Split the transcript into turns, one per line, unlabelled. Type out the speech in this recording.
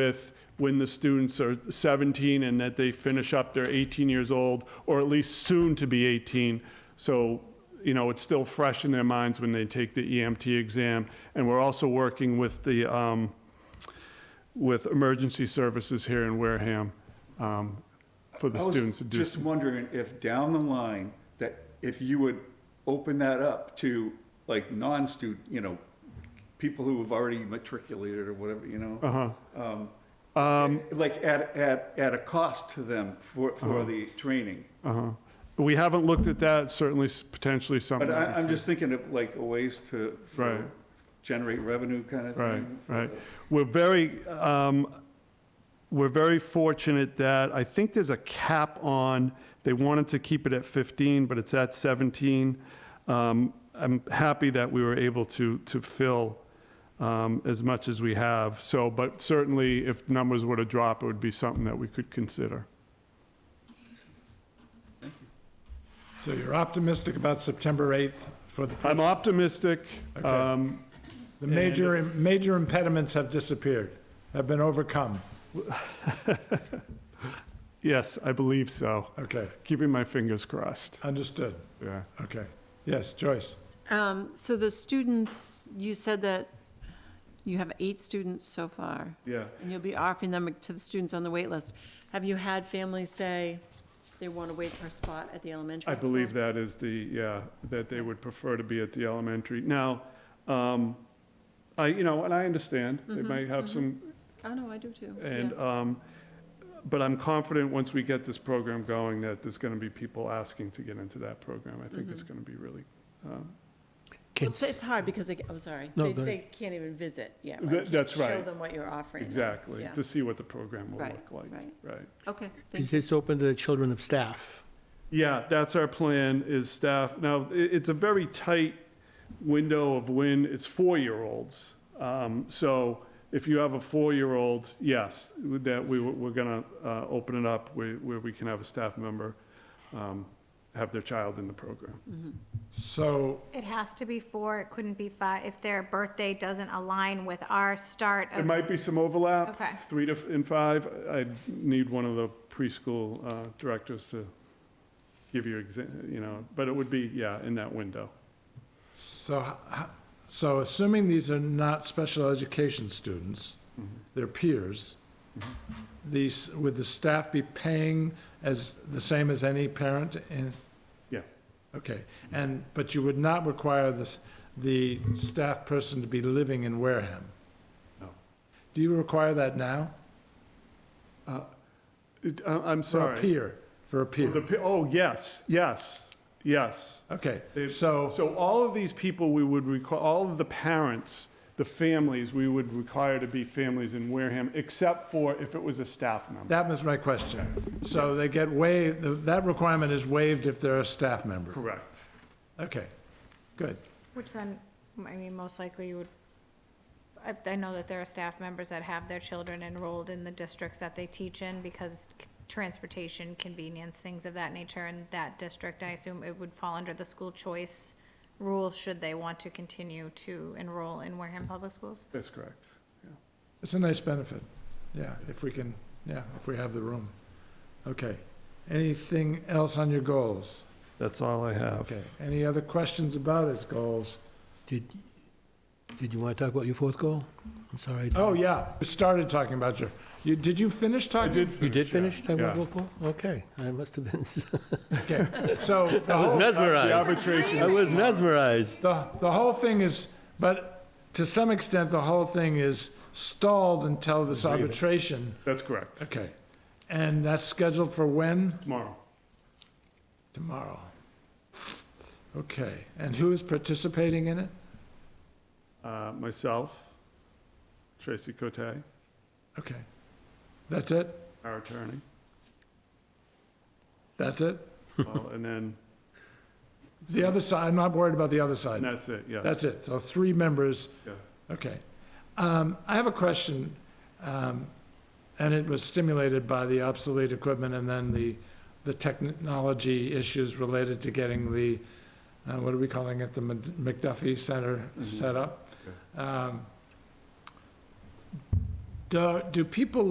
with when the students are 17 and that they finish up, they're 18 years old, or at least soon to be 18. So, you know, it's still fresh in their minds when they take the EMT exam. And we're also working with the, um, with emergency services here in Wareham um, for the
I was
students to do.
Just wondering if down the line, that if you would open that up to like non-student, you know, people who have already matriculated or whatever, you know? Uh-huh. Um. Like at, at, at a cost to them for, for the training.
Uh-huh. We haven't looked at that, certainly s- potentially something.
But I,
we
I'm
could-
just thinking of like ways to. for-
Right.
Generate revenue kind of
Right,
thing.
right. We're very, um, we're very fortunate that, I think there's a cap on, they wanted to keep it at 15, but it's at 17. Um, I'm happy that we were able to, to fill um, as much as we have, so, but certainly if numbers were to drop, it would be something that we could consider.
So you're optimistic about September 8th for the,
I'm optimistic.
Okay.
um,
the major, major impediments have disappeared, have been overcome.
Yes, I believe so.
Okay,
Keeping my fingers crossed,
understood.
yeah.
Okay. Yes, Joyce?
Um, So the students, you said that you have eight students so far,
Yeah.
and you'll be offering them to the students on the wait list. Have you had families say they want to wait for a spot at the elementary
I
school?
believe that is the, yeah, that they would prefer to be at the elementary. Now, um, I, you know, and I understand, they might have some,
Oh, no, I do too. Mm-hmm, yeah.
and, um, but I'm confident once we get this program going, that there's gonna be people asking to get into that program. I think it's
Mm-hmm.
gonna be really,
Well, It's it's hard because they, I'm sorry,
No,
they
go
they can't even visit yet.
That- that's
Show
right.
them what you're offering. them.
exactly,
Yeah.
to see what the program will
Right,
look like,
right.
right?
Okay,
Is
thank you.
this open to the children of staff?
Yeah, that's our plan, is staff, now, i it's a very tight window of when it's four-year-olds. Um, so if you have a four-year-old, yes, with that, we, were- we're gonna, uh, open it up where, where we can have a staff member, um, have their child in the program.
So,
It has to be four, it couldn't be five, if their birthday doesn't align with our start
There
of,
might be some overlap.
Okay.
Three to, f- and five, I'd need one of the preschool, uh, directors to give you exa, you know, but it would be, yeah, in that window.
so, h- so assuming these are not special education students, they're peers, these, would the staff be paying as, the same as any parent in,
Yeah.
Okay, and, but you would not require this, the staff person to be living in Wareham?
No.
Do you require that now?
It- I, I'm
For
sorry.
a peer, for a
The
peer?
pe- oh, yes, yes, yes.
Okay,
They-
so,
So all of these people we would require, all of the parents, the families, we would require to be families in Wareham, except for if it was a staff member.
that was my question. So they get waived, th- that requirement is waived if they're a staff member?
Correct.
Okay, good.
Which then, I mean, most likely you would, I, I know that there are staff members that have their children enrolled in the districts that they teach in because c- transportation, convenience, things of that nature in that district, I assume it would fall under the school choice rule should they want to continue to enroll in Wareham Public Schools?
That's correct.
It's a nice benefit, yeah, if we can, yeah, if we have the room. Okay, anything else on your goals?
That's all I have.
Okay, any other questions about its goals?
Did, did you want to talk about your fourth goal? I'm sorry.
Oh, yeah, we started talking about your, you, did you finish
I
talking?
did
You did
finish,
finish
yeah,
talking about
yeah.
goal four? Okay, I must have been,
Okay, so, the
I was
The
whole,
mesmerized. I
arbitration,
was mesmerized.
the, the whole thing is, but to some extent, the whole thing is stalled until this arbitration.
that's correct,
Okay, and that's scheduled for when?
tomorrow.
Tomorrow. Okay, and who is participating in it?
Uh, Myself, Tracy Cote,
Okay, that's it?
our attorney,
That's it?
well, and then,
The other side, I'm not worried about the other side.
and that's it, yeah.
That's it, so three members
yeah.
Okay. Um, I have a question, um, and it was stimulated by the obsolete equipment and then the, the technology issues related to getting the, uh, what are we calling it, the Mc-
Mm-hmm.
McDuffie Center
Mhm.
set up? Um, Do, do people